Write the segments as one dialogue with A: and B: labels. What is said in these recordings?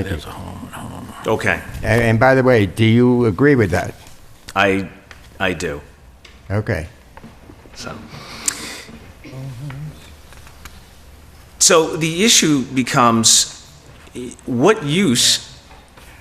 A: Thank you.
B: Okay,
A: And and by the way, do you agree with that?
B: I, I do,
A: Okay.
B: so. So the issue becomes, eh, what use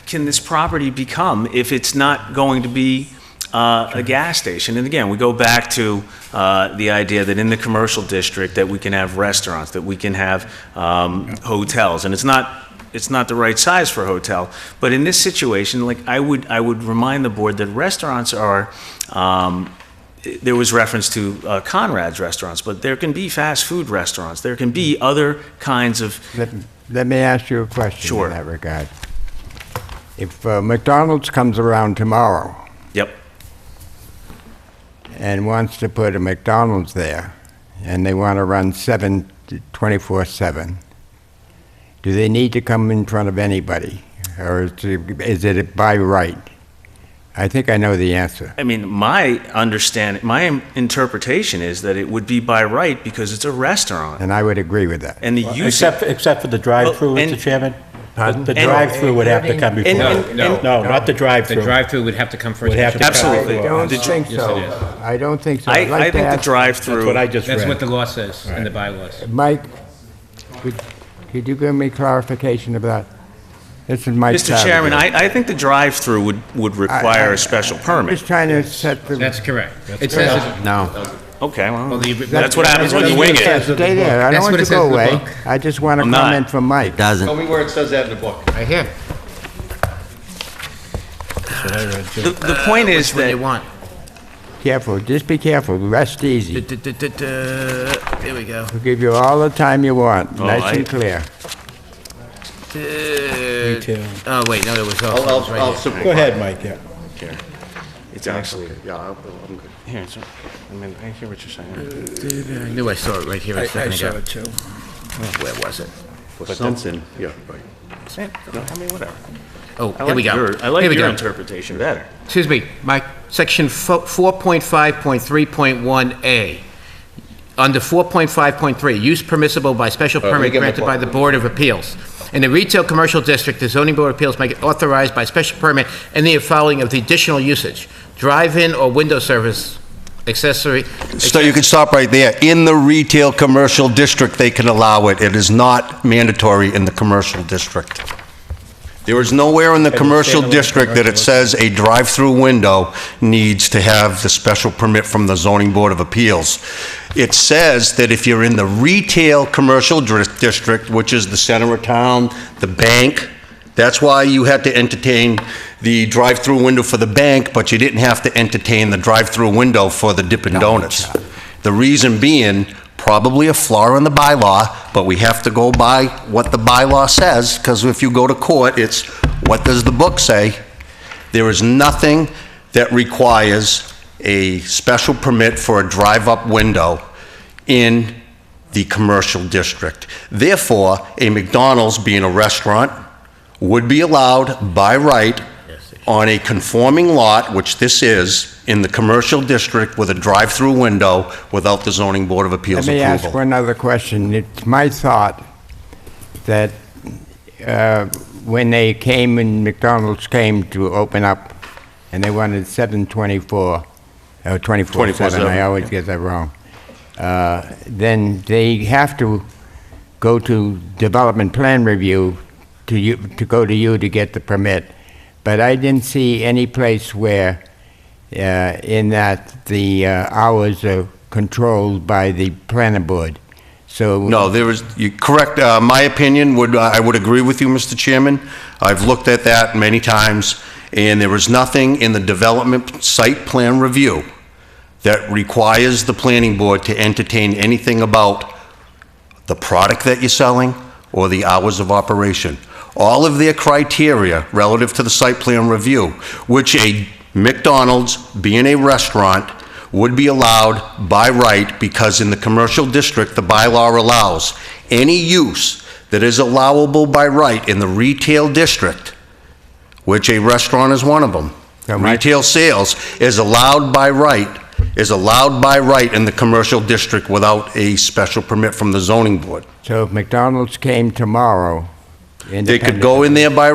B: can this property become if it's not going to be uh, a gas station? And again, we go back to uh, the idea that in the commercial district, that we can have restaurants, that we can have um, hotels, and it's not, it's not the right size for a hotel, but in this situation, like, I would, I would remind the board that restaurants are, um, there was reference to uh, Conrad's restaurants, but there can be fast food restaurants, there can be other kinds of,
A: Let let me ask you a question
B: Sure.
A: in that regard. If uh, McDonald's comes around tomorrow
B: yep,
A: and wants to put a McDonald's there, and they want to run 7, 24/7, do they need to come in front of anybody? Or is it- is it by right? I think I know the answer.
B: I mean, my understanding, my im- interpretation is that it would be by right because it's a restaurant.
A: And I would agree with that.
B: And the use,
C: Except, except for the drive-through,
B: Well, and-
C: Mr. Chairman?
A: Pardon?
C: The
B: And-
C: drive-through would have to come before.
B: and- and- No, and-
C: No, not the
D: The
C: drive-through.
D: drive-through would have to come first.
C: Would have to come
B: Absolutely.
A: I
C: before.
A: don't
B: Did you-
A: think
D: Yes,
A: so.
D: it is.
A: I don't think so. I'd
B: I,
A: like
B: I
A: to
B: think the
A: ask-
C: That's
B: drive-through.
C: what I just
D: That's what
C: read.
D: the law says in the bylaws.
A: Mike, could could you give me clarification of that? This is Mike
B: Mr. Chairman,
A: Savage.
B: I, I think the drive-through would, would require a special
A: I'm just
B: permit.
A: trying to set the...
D: That's correct. It says, it-
E: No.
B: Okay, well,
D: the-
B: that's what happens when you wing it.
A: Stay there, I don't want
D: That's what
A: you
D: it
A: to
D: says
A: go
D: in the
A: away.
D: book.
A: I just want a
B: I'm not.
A: comment from Mike.
F: Tell
E: Doesn't.
F: me where it says that in the book.
D: right here.
B: The, the point is
D: They
B: that
D: want.
A: Careful, just be careful, rest easy.
D: There we go.
A: We'll give you all the time you want,
B: Oh,
A: nice
B: I-
A: and clear.
C: Retail.
D: Oh, wait, no, there was
F: I'll, I'll, I'll
C: Go
F: support.
C: ahead, Mike, yeah.
B: it's actually,
F: Yeah, I'll- I'm good.
B: here, it's- I mean, I hear what you're saying.
D: I knew I saw it right here a second ago. I saw it too. Where was it?
F: For something, yeah, right.
B: Eh, I mean, whatever.
D: Oh,
B: I
D: here we
B: like
D: go.
B: your- I
D: Here
B: like
D: we
B: your
D: go.
B: interpretation better.
D: Excuse me, Mike, section fo- 4.5.3.1A. Under 4.5.3, use permissible by special
F: let me
D: permit
F: get my
D: granted by
F: book.
D: the Board of Appeals. In the retail commercial district, the zoning board of appeals may authorize by special permit any of following of the additional usage, drive-in or window service accessory.
G: So you can stop right there. In the retail commercial district, they can allow it. It is not mandatory in the commercial district. There is nowhere in the commercial
C: standalone
G: district that it says a drive-through window needs to have the special permit from the zoning board of appeals. It says that if you're in the retail commercial dri- district, which is the center of town, the bank, that's why you had to entertain the drive-through window for the bank, but you didn't have to entertain the drive-through window for the Dippin' Donuts. The reason being, probably a flaw in the bylaw, but we have to go by what the bylaw says, because if you go to court, it's what does the book say? There is nothing that requires a special permit for a drive-up window in the commercial district. Therefore, a McDonald's being a restaurant would be allowed by right on a conforming lot, which this is, in the commercial district with a drive-through window without the zoning board of appeals
A: Let me
G: approval.
A: ask one other question. It's my thought that uh, when they came and McDonald's came to open up, and they wanted 724, oh, 24/7,
G: 24/7,
A: I always get that wrong, uh, then they have to go to development plan review to you, to go to you to get the permit. But I didn't see any place where, uh, in that the uh, hours are controlled by the planning board. So.
G: No, there is, you, correct, uh, my opinion would, I would agree with you, Mr. Chairman. I've looked at that many times, and there is nothing in the development site plan review that requires the planning board to entertain anything about the product that you're selling or the hours of operation. All of their criteria relative to the site plan review, which a McDonald's, being a restaurant, would be allowed by right because in the commercial district, the bylaw allows any use that is allowable by right in the retail district, which a restaurant is one of them.
A: Yeah, Mike.
G: Retail sales is allowed by right, is allowed by right in the commercial district without a special permit from the zoning board.
A: So if McDonald's came tomorrow
G: They could go in there by